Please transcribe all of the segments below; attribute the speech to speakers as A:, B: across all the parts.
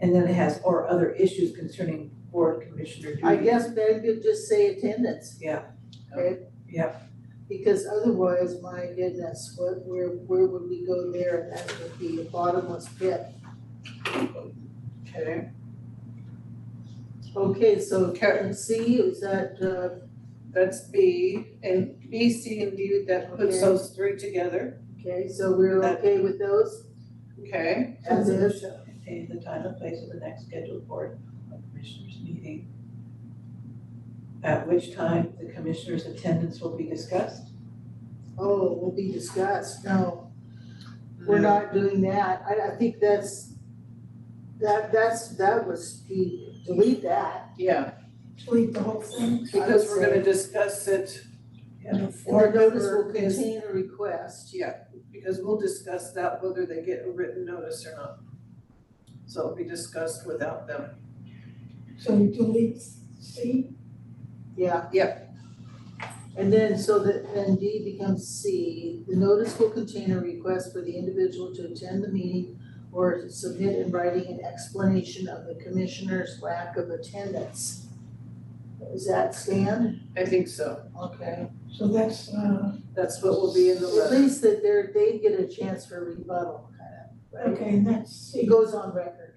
A: And then it has or other issues concerning board commissioner duties.
B: I guess maybe you just say attendance.
A: Yeah.
B: Okay?
A: Yep.
B: Because otherwise, my goodness, what, where, where would we go there? And that would be a bottomless pit. Okay. Okay, so Karen C, is that, uh,
C: That's B, and B, C, and D, that puts
B: Okay.
C: those three together,
B: okay, so we're
C: That-
B: okay with those?
C: okay?
B: As is?
A: Shall contain the time and place of the next scheduled board of commissioners meeting. At which time the commissioner's attendance will be discussed.
B: Oh, will be discussed, no, we're not doing that, I, I think that's, that, that's, that was, the- delete that.
C: Yeah,
D: Delete the whole thing.
C: because we're gonna discuss it,
B: Or notice will
C: For this-
B: contain a request,
C: because we'll discuss that whether they get a written notice or not. So it'll be discussed without them.
D: So you delete C,
B: yeah. And then, so that, then D becomes C, the notice will contain a request for the individual to attend the meeting or to submit in writing an explanation of the commissioner's lack of attendance. Is that stand?
C: I think so,
B: Okay.
D: so that's, uh,
C: that's what will be in the
B: At
C: letter.
B: least that they're, they get a chance for rebuttal, kind of, right?
D: okay, and that's
B: It
D: C,
B: goes on record,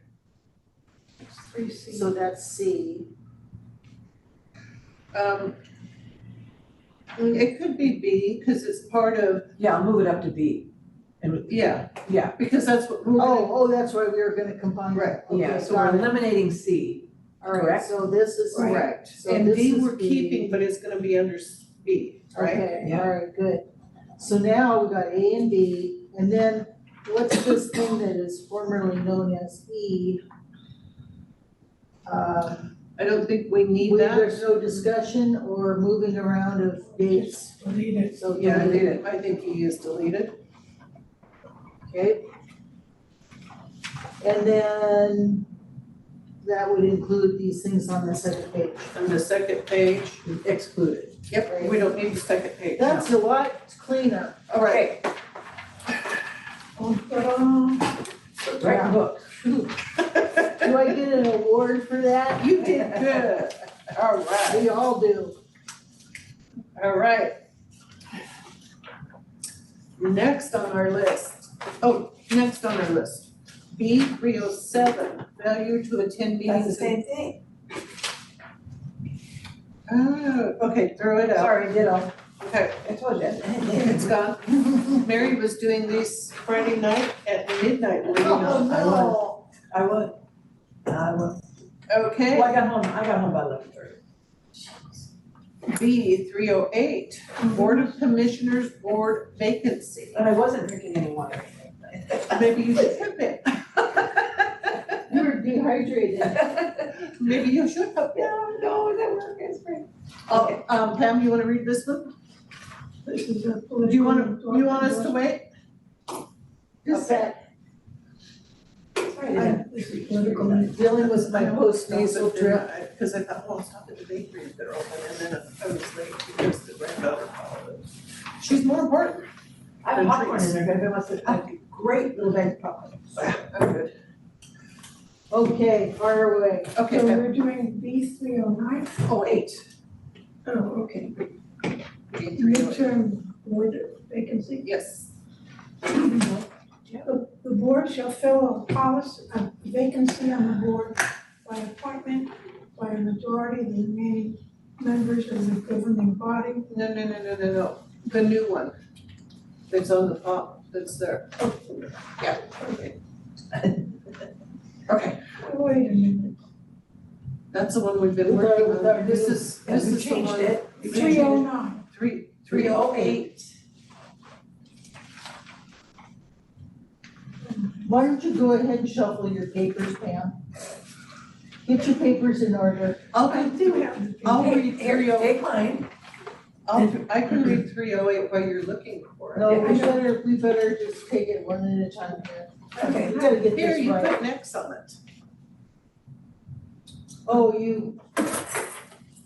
D: It's three C.
B: so that's C.
C: Um, it could be B, cause it's part of,
A: Yeah, I'll move it up to B. And,
C: yeah.
A: Yeah.
C: Because that's what, we're
B: Oh,
C: gonna,
B: oh, that's right, we are gonna combine
C: Right,
B: that, okay,
A: yeah, so we're
B: got it.
A: eliminating C.
B: All right,
A: correct?
B: so this is, right,
C: correct,
B: so
C: and
B: this
C: D
B: is
C: we're
B: B.
C: keeping, but it's gonna be under s- B, right?
B: okay,
A: Yeah.
B: all right, good. So now we got A and B, and then what's this thing that is formerly known as E? Um,
C: I don't think we need
B: we-
C: that.
B: there's no discussion or moving around of dates,
D: Just delete it.
B: so.
C: Yeah, I did it. I think he is deleted.
B: Okay. And then that would include these things on the second page.
C: On the second page,
A: Excluded.
C: yep, we don't need the second page.
B: That's a lot cleaner.
C: All right,
D: Oh, ta-da.
A: Write the book.
B: Do I get an award for that?
C: you did good. All right,
B: We all do.
C: all right. Next on our list, oh, next on our list, B three oh seven, failure to attend
A: That's the
C: meetings. and-
A: same thing.
C: Oh, okay, throw it out.
A: Sorry, ditto.
C: Okay,
A: I told you.
C: it's gone. Mary was doing these Friday night at midnight, were you
B: Oh,
C: not?
B: no.
A: I would. I would.
C: Okay.
A: Well, I got home, I got home by eleven thirty.
C: B three oh eight,
A: Mm-hmm.
C: Board of Commissioners Board vacancy.
A: And I wasn't drinking any water.
C: Maybe you should have been,
B: You're dehydrated.
C: maybe you should have been.
A: No, no, that work is great.
C: Oh, um, Pam, you wanna read this one?
D: This is a
C: Do
D: political.
C: you wanna, you want us to wait?
B: Just that,
A: Sorry,
D: I- This is political.
B: dealing with my post nasal drip.
C: I- Cause I thought, well, I'll stop at the bakery if they're open, and then I was late because the granddaughter called. She's more important.
A: I have popcorn in there, if anybody wants to, I have a great little bag of popcorn.
C: I'm good.
B: Okay, fire away.
D: So
C: Okay,
D: we're doing B three oh nine,
C: oh eight,
D: oh, okay,
C: B three oh eight,
D: midterm board vacancy.
C: yes,
D: The the board shall fill a policy, a vacancy on the board by appointment by a majority of the remaining members of the governing body.
C: no, no, no, no, no, no, the new one. That's on the top, that's there. Yeah, okay. Okay.
D: Wait a minute,
C: That's the one we've been
B: With our-
C: working
B: with our
C: on. This is,
A: And
C: this
A: we
C: is the
A: changed
C: one,
A: it.
C: We
D: three oh nine,
C: three, three oh eight.
B: Why don't you go ahead and shuffle your papers, Pam? Get your papers in order.
D: I
C: oh I'll,
D: do have the.
C: I'll
A: Hey,
C: read
A: here,
C: three oh,
A: Take mine.
C: I'll, I can read three oh eight while you're looking for it.
B: No,
A: Yeah, I
B: we
A: know.
B: better, we better just take it one at a time here.
A: Okay.
B: We gotta get
C: Here,
B: this
C: you
B: right.
C: put next on it.
B: Oh, you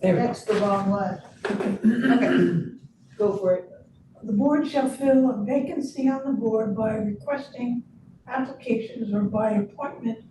A: There we go.
B: next the wrong one.
C: Okay,
B: Go for it.
D: The board shall fill a vacancy on the board by requesting applications or by appointment